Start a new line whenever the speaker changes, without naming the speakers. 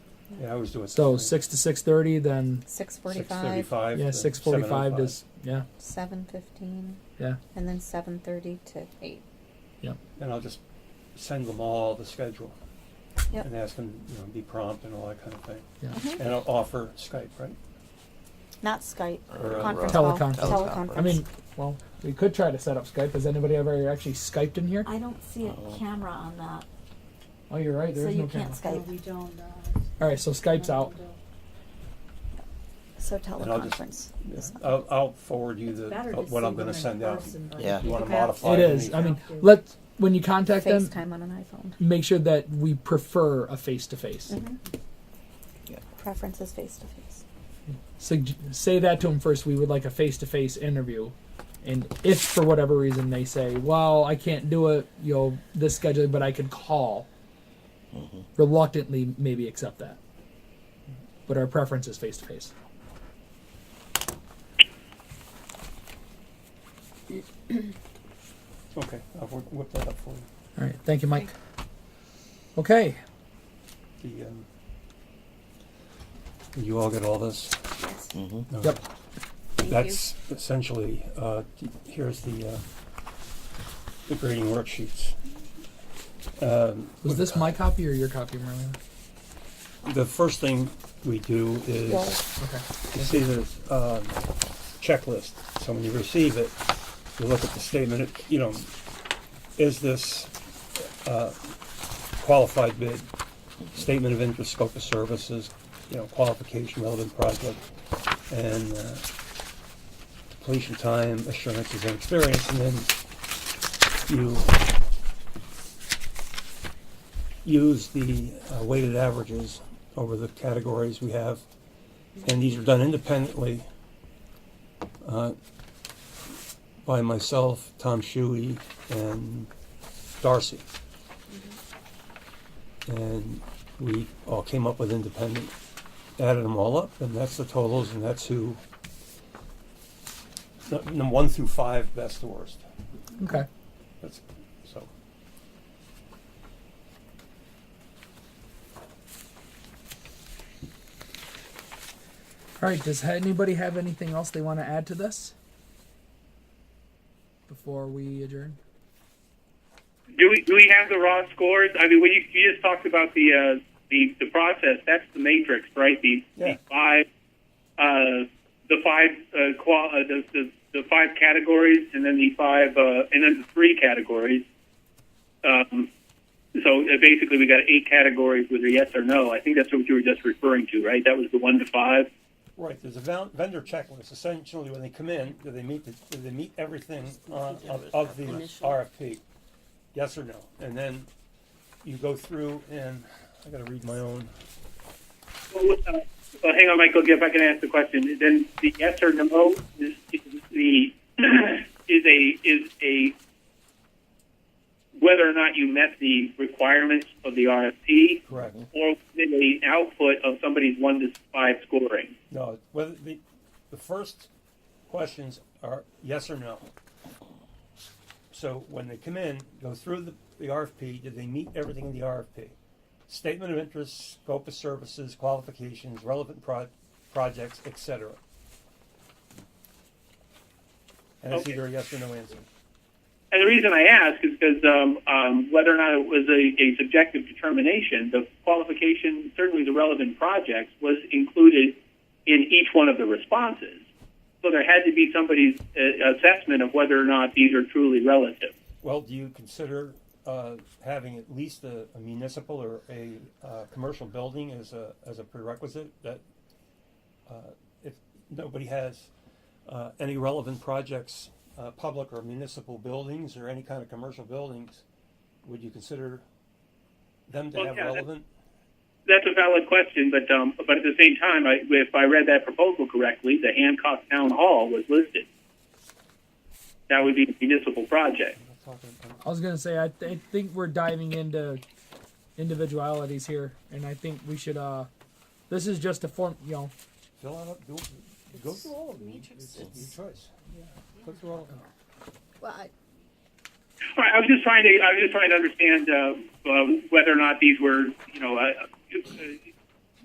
Yeah, I was doing.
So six to six thirty, then
Six
Six
forty-five,
thirty-five.
yeah, six
oh
forty-five to s- yeah,
seven fifteen,
yeah.
and then seven thirty to eight.
oh And I'll just send them all the schedule.
Yep.
And ask them, you know, be prompt and all that kind of thing.
Yeah.
Mm-hmm.
Mhm.
And I'll offer Skype, right?
Not Skype,
Or, uh,
conference call.
Teleconference.
Teleconference.
I mean, well, we could try to set up Skype. Has anybody ever actually Skyped in here?
I don't see a
Uh-oh.
camera on that.
Oh, you're right. There
So
is
you
no camera.
can't
camera.
Skype.
No,
we don't.
All right, so Skype's out.
So
And I'll just-
teleconference.
Yeah.
is not-
I'll, I'll forward you the, uh, what I'm gonna send out.
Yeah.
You wanna
Perhaps.
modify
It
it?
is. I mean, let when you contact them,
FaceTime on an iPhone.
make sure that we prefer a face-to-face.
Mhm.
Yeah.
Preference is face to face.
Sug- say that to them first. We would like a face-to-face interview, and if for whatever reason they say, "Well, I can't do it," you know, this schedule, but I could call. Reluctantly, maybe accept that. But our preference is face-to-face.
Okay, I'll whi- whip that up for you.
All right. Thank you, Mike. Okay.
The, um, you all get all this?
Yes.
Mm-hmm.
No.
Yep.
Thank you.
That's essentially, uh, here's the, uh, the grading worksheets. Um,
Was this my copy or your copy, Marlena?
The first thing we do is,
Well,
Okay.
you see the, um, checklist, so when you receive it, you look at the statement, it- you know, is this, uh, qualified bid, statement of interest, scope of services, you know, qualification, relevant project, and, uh, completion time, assurances and experience, and then you use the uh, weighted averages over the categories we have, and these are done independently uh, by myself, Tom Shuey, and Darcy. And we all came up with independent, added them all up, and that's the totals, and that's who, the- the one through five, best to worst.
Okay.
That's, so.
All right. Does ha- anybody have anything else they want to add to this before we adjourn?
Do we do we have the raw scores? I mean, when you, you just talked about the uh, the the process, that's the matrix, right? The,
Yeah.
the five, uh, the five uh, qual- uh, the, the the five categories, and then the five, uh, and then the three categories. Um, so uh, basically, we got eight categories with a yes or no. I think that's what you were just referring to, right? That was the one to five.
Right, there's a ven- vendor checklist, essentially, when they come in, do they meet, the- do they meet everything uh, of, of the RFP? Yes or no? And then you go through and, I gotta read my own,
Well, uh, well, hang on, Michael. If I can ask the question, then the yes or no is, is the is a is a whether or not you met the requirements of the RFP,
correct,
or did a output of somebody's one to five scoring.
no, whether, the, the first questions are yes or no. So when they come in, go through the, the RFP, did they meet everything in the RFP? Statement of interest, scope of services, qualifications, relevant pro- projects, et cetera. And it's
Okay.
either a yes or no answer.
And the reason I ask is because um, um, whether or not it was a, a subjective determination, the qualification, certainly the relevant projects, was included in each one of the responses. So there had to be somebody's uh, assessment of whether or not these are truly relative.
Well, do you consider uh, having at least a a municipal or a uh, commercial building as a, as a prerequisite? That uh, if nobody has uh, any relevant projects, uh, public or municipal buildings or any kind of commercial buildings, would you consider them to
Well,
have
yeah, that-
relevant?
That's a valid question, but um, but at the same time, I, if I read that proposal correctly, the Hancock Town Hall was listed. That would be a municipal project.
I'm not talking- I'm-
I was gonna say I, th- I think we're diving into individualities here, and I think we should. uh This is just a form, you know.
Fill out, do, go through all of them. It's your choice. Go through all of them.
Well, I-
All right, I was um, just trying to I was just trying to understand uh, uh, whether or not these were you know uh, uh,